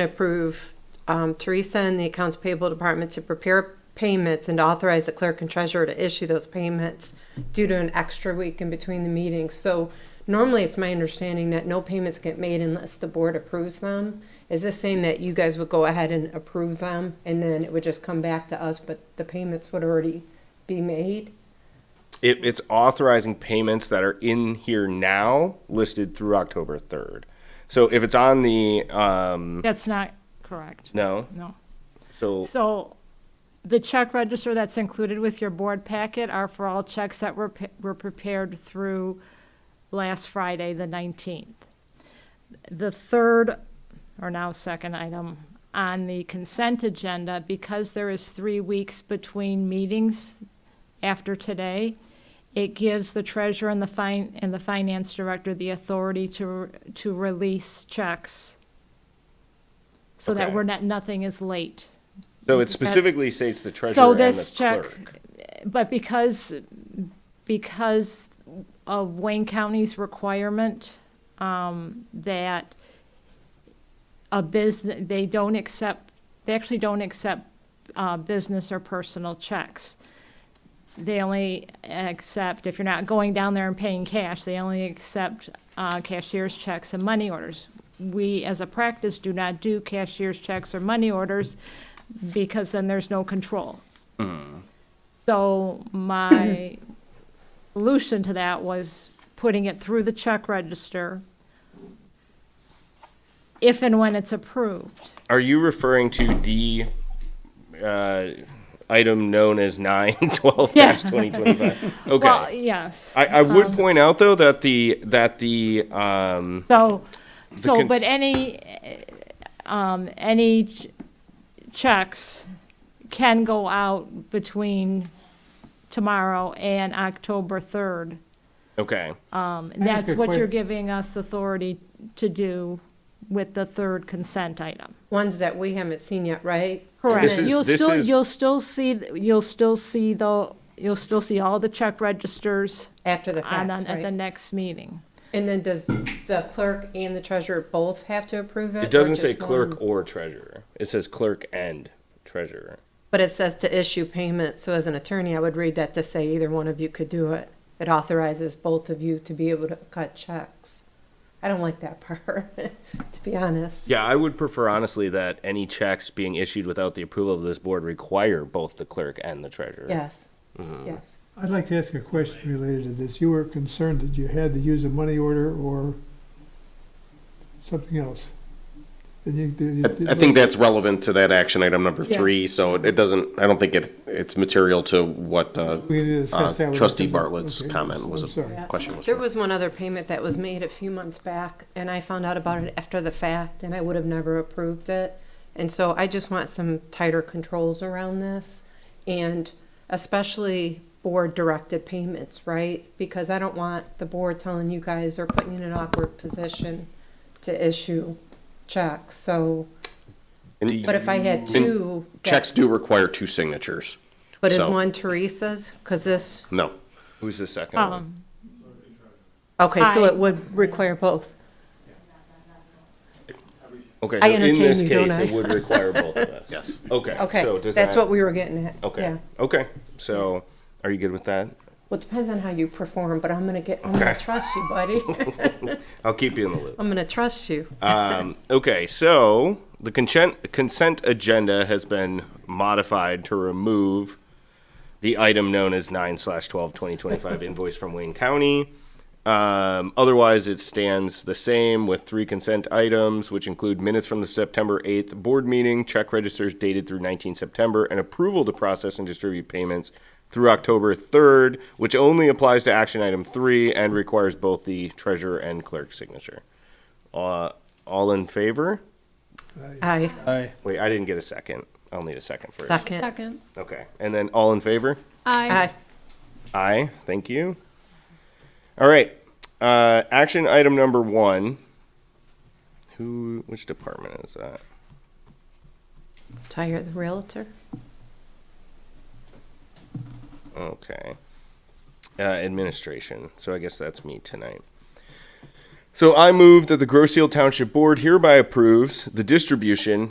and approve um, Teresa and the Accounts Payable Department to prepare payments and authorize the clerk and treasurer to issue those payments due to an extra week in between the meetings. So normally, it's my understanding that no payments get made unless the board approves them. Is this saying that you guys would go ahead and approve them, and then it would just come back to us, but the payments would already be made? It, it's authorizing payments that are in here now listed through October 3rd. So if it's on the, um, That's not correct. no, No. so So the check register that's included with your board packet are for all checks that were, pa- were prepared through last Friday, the 19th. The third, or now second item on the consent agenda, because there is three weeks between meetings after today, it gives the treasurer and the fin, and the finance director the authority to, to release checks so that Okay. we're not, nothing is late. so it specifically states the treasurer So and this the check, clerk. but because, because of Wayne County's requirement, um, that a business, they don't accept, they actually don't accept, uh, business or personal checks. They only accept, if you're not going down there and paying cash, they only accept, uh, cashier's checks and money orders. We, as a practice, do not do cashier's checks or money orders because then there's no control. So my solution to that was putting it through the check register if and when it's approved. Are you referring to the, uh, item known as 912-2025? Well, um, Okay. yes. I, I would point out though that the, that the, um, So, so, cons- but any, eh, um, any ch- checks can go out between tomorrow and October third. okay. Um, that's a what you're quick- giving us authority to do with the third consent item. Ones that we haven't seen yet, right? Correct. This is- You'll this still, is- you'll still see, th- you'll still see the, you'll still see all the check registers After the fact, on, on, at right? the next meeting. And then does the clerk and the treasurer both have to approve it? It doesn't or say just one? clerk or treasurer. It says clerk and treasurer. But it says to issue payment, so as an attorney, I would read that to say either one of you could do it. It authorizes both of you to be able to cut checks. I don't like that part, to be honest. Yeah, I would prefer honestly that any checks being issued without the approval of this board require both the clerk and the treasurer. Yes, Mm-hmm. yes. I'd like to ask a question related to this. You were concerned that you had to use a money order or something else. And you, did- you did- I think that's relevant to that action item number Yeah. three, so it it doesn't, I don't think it, it's material to what uh, We need to discuss uh, that with- trustee Bartlett's Okay, comment was, I'm sorry. a question was. There was one other payment that was made a few months back, and I found out about it after the fact, and I would have never approved it. And so I just want some tighter controls around this, and especially board-directed payments, right? Because I don't want the board telling you guys or putting you in an awkward position to issue checks, so, And but if I had Mm, you- two. that- Checks do require two signatures. But is so- one Teresa's? Because this, No. Who's the second one? Um, okay, so I- it would require both. Okay, I so in entertain this you, don't case, it I? would require both of us. Yes. Okay. So Okay, does that's that- what we were getting at. Okay. yeah. Okay. So are you good with that? Well, it depends on how you perform, but I'm gonna get, I'm gonna Okay. trust you, buddy. I'll keep you in the loop. I'm gonna trust you. Um, okay, so the consent consent agenda has been modified to remove the item known as nine slash twelve twenty twenty five invoice from Wayne County. Um, otherwise, it stands the same with three consent items, which include minutes from the September eighth board meeting, check registers dated through nineteen September, and approval to process and distribute payments through October third, which only applies to action item three and requires both the treasurer and clerk signature. Uh, all in favor? Aye, Wait, I didn't get a second. I'll need a second first. second. Second. Okay, and then all in favor? Aye. Aye, Aye, thank you. All right, uh, action item number one. Who, which department is that? tire the realtor. Okay. Uh, administration. So I guess that's me tonight. So I move that the Groseal Township Board hereby approves the distribution